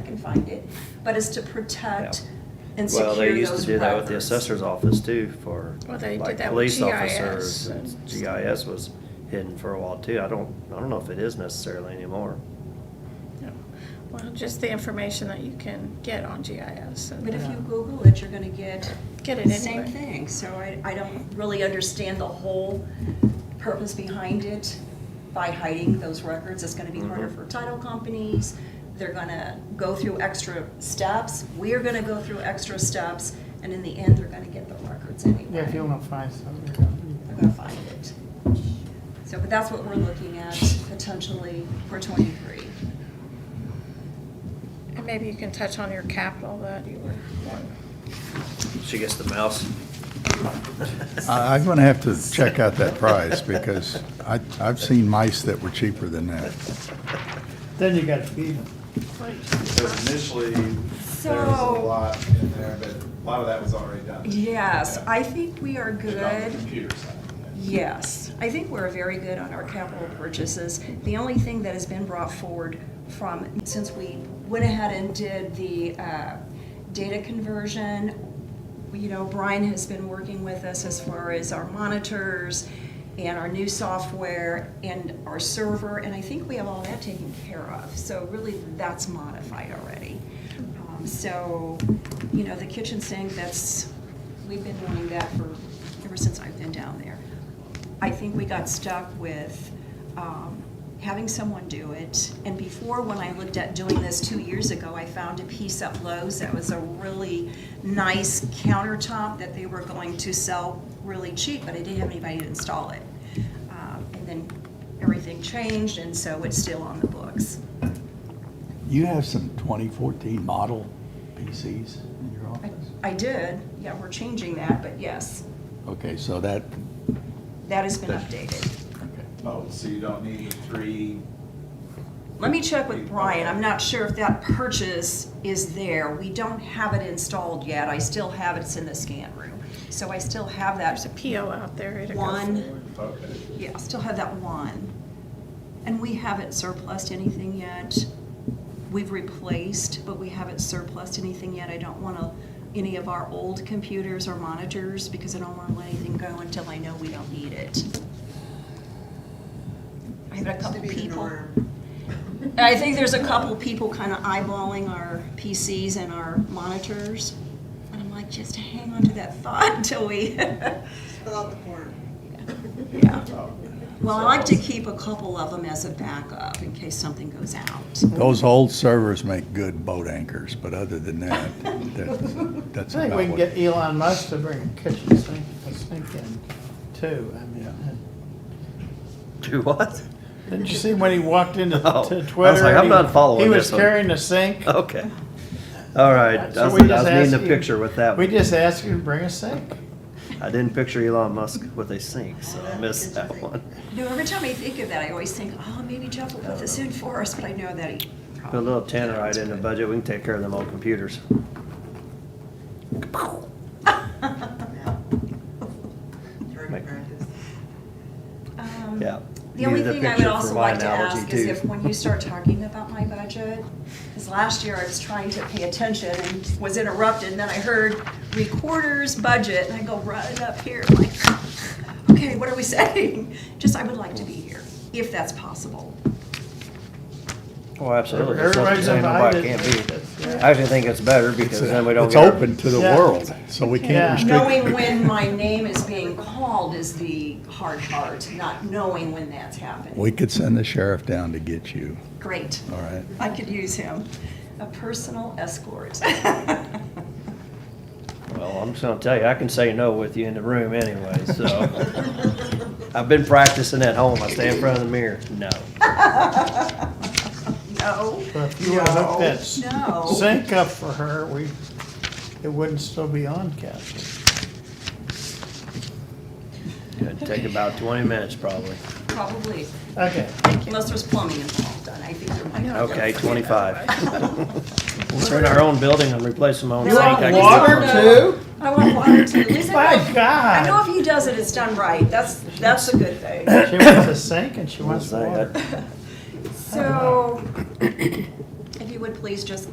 can find it, but it's to protect and secure Well, those records. they used to do that with the assessor's office too for Well, they did like that with police GIS officers. and and stuff. GIS was hidden for a while too. I don't, I don't know if it is necessarily anymore. Yeah. Well, just the information that you can get on GIS. and- uh, But if you Google it, you're gonna get Get it the same anyway. thing, so I, I don't really understand the whole purpose behind it by hiding those records, it's gonna be harder Mhm. for title companies, they're gonna go through extra steps, we're gonna go through extra steps, and in the end, they're gonna get the records anyway. Yeah, if you want to find something. They're gonna find it. So, but that's what we're looking at potentially for twenty-three. And maybe you can touch on your capital that you were. She gets the mouse. I- I'm going to have to check out that price because I, I've seen mice that were cheaper than that. Then you got to feed them. Because initially, there was a So- lot in there, but a lot of that was already done. Yes, Okay. I think we are Just on the good. computer side. Yes, I think we're very good on our capital purchases. The only thing that has been brought forward from, since we went ahead and did the uh, data conversion, you know, Brian has been working with us as far as our monitors and our new software and our server, and I think we have all that taken care of. So really, that's modified already. Um, So, you know, the kitchen sink, that's, we've been wanting that for, ever since I've been down there. I think we got stuck with um, having someone do it. And before, when I looked at doing this two years ago, I found a piece at Lowe's that was a really nice countertop that they were going to sell really cheap, but I didn't have anybody to install it. Um, And then everything changed, and so it's still on the books. You have some 2014 model PCs in your I- office? I did, yeah, we're changing that, but yes, Okay, so that, that has been updated. okay. Oh, so you don't need the three, Let me check with Brian. I'm not sure if that purchase is there. We don't have it installed yet. I still have it. It's in the scan room. So I still have There's that, a PO out there to go One. forward. okay. yeah, I still have that one. And we haven't surplused anything yet. We've replaced, but we haven't surplused anything yet. I don't want to, any of our old computers or monitors because I don't want to let anything go until I know we don't need it. I had a couple people. I think there's a couple people kind of eyeballing our PCs and our monitors. And I'm like, just hang on to that thought until we, Fill out the form. yeah. Oh. Well, I like to keep a couple of them as a backup in case something goes out. Those old servers make good boat anchors, but other than that, that- that's I think we can about what. get Elon Musk to bring a kitchen sink, a sink in too. I mean, Do what? didn't you see when he walked into Oh, I was to like, Twitter? I'm he- not following He this was one. carrying a sink. Okay. All right. I was So I we was just needing ask a you- picture with that. We one. just asked him to bring a sink. I didn't picture Elon Musk with a sink, so I missed that one. You know, every time I think of that, I always think, oh, maybe Jeff will put this in for us, but I know that he Put a probably. little tannerite in the budget, we can take care of them old computers. Target practice. Um, Yeah. The only Needed a thing I would picture for also my like to analogy, ask is too. if, when you start talking about my budget, because last year I was trying to pay attention and was interrupted, and then I heard recorder's budget, and I go right up here, like, okay, what are we saying? Just, I would like to be here, if that's possible. Oh, absolutely. That's not Everybody's saying nobody invited. can't be. I actually think it's better because then we don't. It's get our- open to the Yeah. world, so we Yeah. can't restrict. Knowing when my name is being called is the hard part, not knowing when that's happening. We could send the sheriff down to get you, Great, all right? I could use him, a personal escort. Well, I'm just gonna tell you, I can say no with you in the room anyway, so. I've been practicing at home. I stay in front of the mirror. No. No. So if you want to hook that s- No. sink up for her, we, it wouldn't still be on, Kathy. It'd take about twenty minutes probably. Probably, Okay. unless there's plumbing involved, and I think there might. Okay, twenty-five. We're in our own building and replace my own You sink. want I can do water it. too? I want water too. At least I My know- I know God. if he does it, it's done right. That's, that's a good thing. She wants a sink and she I was wants saying, I- water. So, if you would please just